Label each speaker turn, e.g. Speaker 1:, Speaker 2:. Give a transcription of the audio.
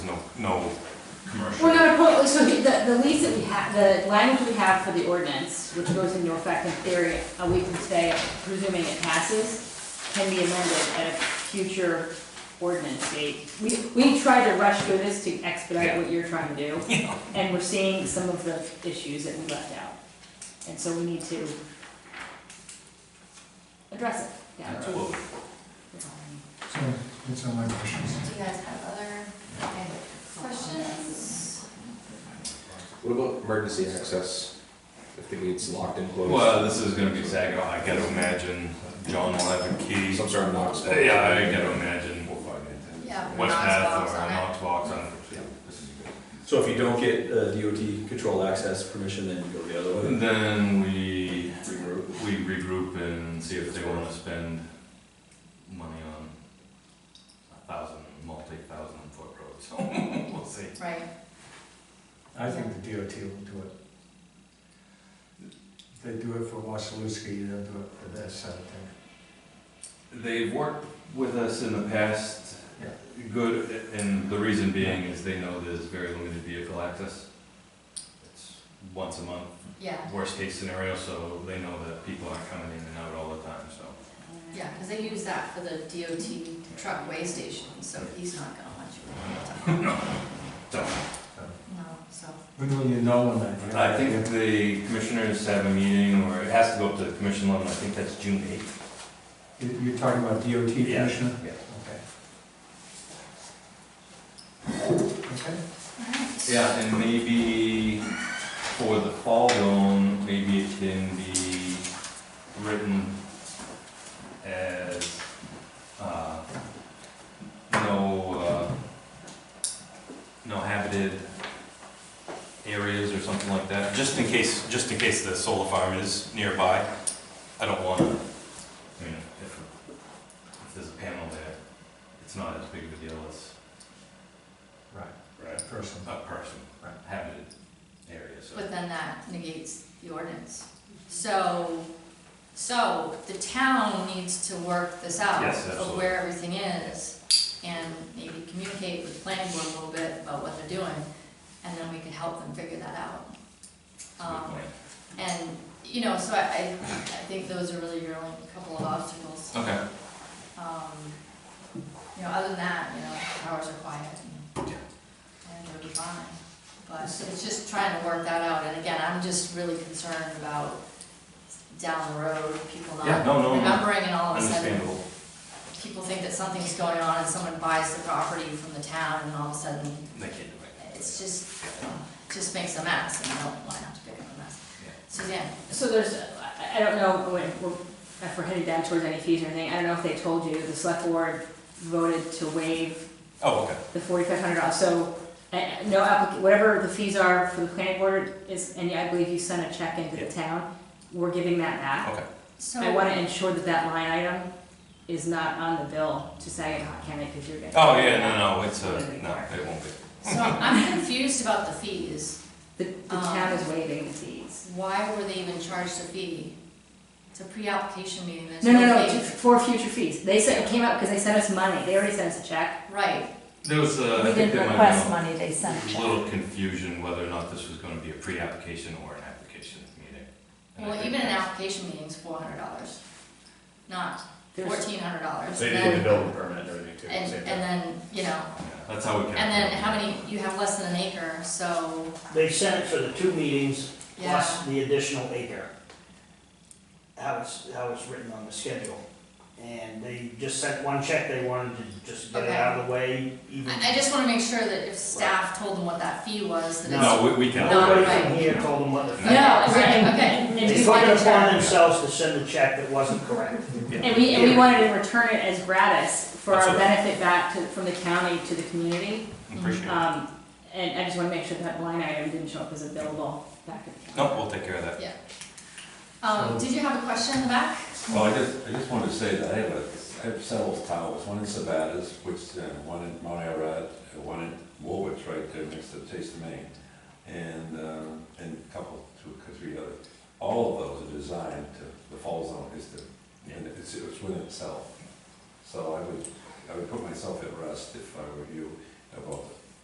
Speaker 1: no commercial.
Speaker 2: We're gonna put, so the, the lease that we have, the language we have for the ordinance, which goes into effect in theory a week from today, presuming it passes, can be amended at a future ordinance date. We, we tried to rush through this to expedite what you're trying to do,
Speaker 3: Yeah.
Speaker 2: and we're seeing some of the issues that we left out. And so we need to address it, yeah. that's all
Speaker 1: Absolutely.
Speaker 2: I
Speaker 4: So, it's on my questions.
Speaker 5: Do you guys have other okay, questions?
Speaker 6: What about emergency access? I think it's locked and closed.
Speaker 1: Well, this is gonna be Saginaw, I gotta imagine John will have a key.
Speaker 6: Some sort of Knox. box.
Speaker 1: Yeah, I gotta imagine
Speaker 5: Yeah.
Speaker 1: West
Speaker 5: Knox
Speaker 1: Path
Speaker 5: box
Speaker 1: or
Speaker 5: on
Speaker 1: a
Speaker 5: it.
Speaker 1: Knox box on it.
Speaker 7: So if you don't get uh, DOT control access permission, then you go the other way?
Speaker 1: And Then we,
Speaker 7: Regroup.
Speaker 1: we regroup and see if they wanna spend money on a thousand, multi-thousand foot roads, so we'll see.
Speaker 5: Right,
Speaker 4: I think the DOT will do it. They do it for Wasilewski, they'll do it for this, I think.
Speaker 1: They've worked with us in the past,
Speaker 4: Yeah.
Speaker 1: good, and the reason being is they know there's very limited vehicle access. It's Once a month,
Speaker 5: yeah,
Speaker 1: worst case scenario, so they know that people aren't coming in and out all the time, so.
Speaker 2: don't know.
Speaker 5: yeah, because they use that for the DOT truck way station, so he's not gonna want you. to-
Speaker 1: So,
Speaker 5: No, so,
Speaker 4: When will you know when I?
Speaker 1: I think if the commissioners have a meeting, or it has to go up to the commission level, I think that's June eighth.
Speaker 4: You- You're talking about DOT
Speaker 1: Yeah.
Speaker 4: commissioner?
Speaker 1: Yeah.
Speaker 4: Okay. Okay.
Speaker 5: alright.
Speaker 1: Yeah, and maybe for the fall zone, maybe it can be written as, uh, no, uh, no habited areas or something like that, just in case, just in case the solar farm is nearby. I don't wanna, I mean, if, if there's a panel there, it's not as big of a deal as.
Speaker 4: Right,
Speaker 1: Right
Speaker 4: person.
Speaker 1: a person,
Speaker 4: Right.
Speaker 1: habited area, so.
Speaker 5: But then that negates the ordinance. So, so the town needs to work this out.
Speaker 1: Yes,
Speaker 5: Of
Speaker 1: absolutely.
Speaker 5: where everything is, and maybe communicate with the planning board a little bit about what they're doing, and then we can help them figure that out. Um, And, you know, so I, I, I think those are really your only couple of obstacles.
Speaker 1: Okay.
Speaker 5: Um, you know, other than that, you know, hours are quiet and, and it'll be fine. But it's just trying to work that out, and again, I'm just really concerned about down the road, people
Speaker 1: Yeah,
Speaker 5: not
Speaker 1: no, no, no.
Speaker 5: remembering and all of a sudden,
Speaker 1: Understandable.
Speaker 5: people think that something's going on and someone buys the property from the town and all of a sudden,
Speaker 1: They can't do it.
Speaker 5: it's just, it just makes a mess, and I don't want to have to pick up a mess.
Speaker 1: Yeah.
Speaker 5: Suzanne?
Speaker 2: So there's, I, I don't know, when, we're- if we're headed down towards any fees or anything, I don't know if they told you, the select board voted to waive
Speaker 1: Oh, okay.
Speaker 2: the forty-five hundred dollars, so, uh, no applic, whatever the fees are for the planning board is, and I believe you sent a check into
Speaker 1: Yeah.
Speaker 2: the town, we're giving that back.
Speaker 5: So.
Speaker 2: I wanna ensure that that line item is not on the bill to Saginaw County, because you're getting.
Speaker 1: Oh, yeah, no, no, it's a, no, it won't be.
Speaker 5: So I'm confused about the fees.
Speaker 2: The, the
Speaker 5: Um.
Speaker 2: town is waiving the fees.
Speaker 5: Why were they even charged a fee? It's a pre-application meeting, there's
Speaker 2: No, no, no,
Speaker 5: no
Speaker 2: to-
Speaker 5: fee.
Speaker 2: for future fees, they sent, it came up, because they sent us money, they already sent us a check,
Speaker 5: Right,
Speaker 1: There was, uh,
Speaker 3: We
Speaker 1: I think
Speaker 3: didn't
Speaker 1: there might
Speaker 3: request
Speaker 1: be
Speaker 3: money, they
Speaker 1: a
Speaker 3: sent a check.
Speaker 1: little confusion whether or not this was gonna be a pre-application or an application meeting. And I
Speaker 5: well,
Speaker 1: think
Speaker 5: even an
Speaker 1: that's-
Speaker 5: application meeting's four hundred dollars, not
Speaker 2: there's,
Speaker 5: fourteen hundred dollars.
Speaker 7: So you get the building permit and everything too.
Speaker 5: And,
Speaker 7: same
Speaker 5: and
Speaker 7: thing.
Speaker 5: then, you know,
Speaker 1: yeah, That's how we can.
Speaker 5: and then how many, you have less than an acre, so,
Speaker 8: They sent it for the two meetings, plus
Speaker 5: yeah,
Speaker 8: the additional acre. How it's, how it's written on the schedule. And they just sent one check, they wanted to just get it
Speaker 5: Okay.
Speaker 8: out of the way, even.
Speaker 5: I, I just wanna make sure that if staff told them what that fee was, that it's.
Speaker 1: No, we, we can.
Speaker 8: Nobody
Speaker 5: Right.
Speaker 8: from here told them what the.
Speaker 2: No,
Speaker 5: Okay,
Speaker 2: right,
Speaker 5: okay.
Speaker 2: and
Speaker 8: They
Speaker 2: we
Speaker 8: took
Speaker 2: wanted
Speaker 8: it
Speaker 2: to-
Speaker 8: upon themselves to send a check that wasn't correct.
Speaker 2: And we, and we wanted to return it as gratis for our
Speaker 1: Absolutely.
Speaker 2: benefit back to, from the county to the community.
Speaker 1: Appreciate it.
Speaker 5: Uh,
Speaker 2: Um, and I just wanna make sure that line item didn't show up as available back at the county.
Speaker 1: No, we'll take care of that.
Speaker 5: Um, did you have a question in the back?
Speaker 9: Well, I just, I just wanted to say that I have a, I have several towers, one in Sabatas, which, uh, one in Mount Arad, and one in Woolwich, right there next to the Taste of Maine, and, um, and a couple, two, or three other. All of those are designed to, the fall zone is to, and it's, it's within itself. So I would, I would put myself at rest if I were you about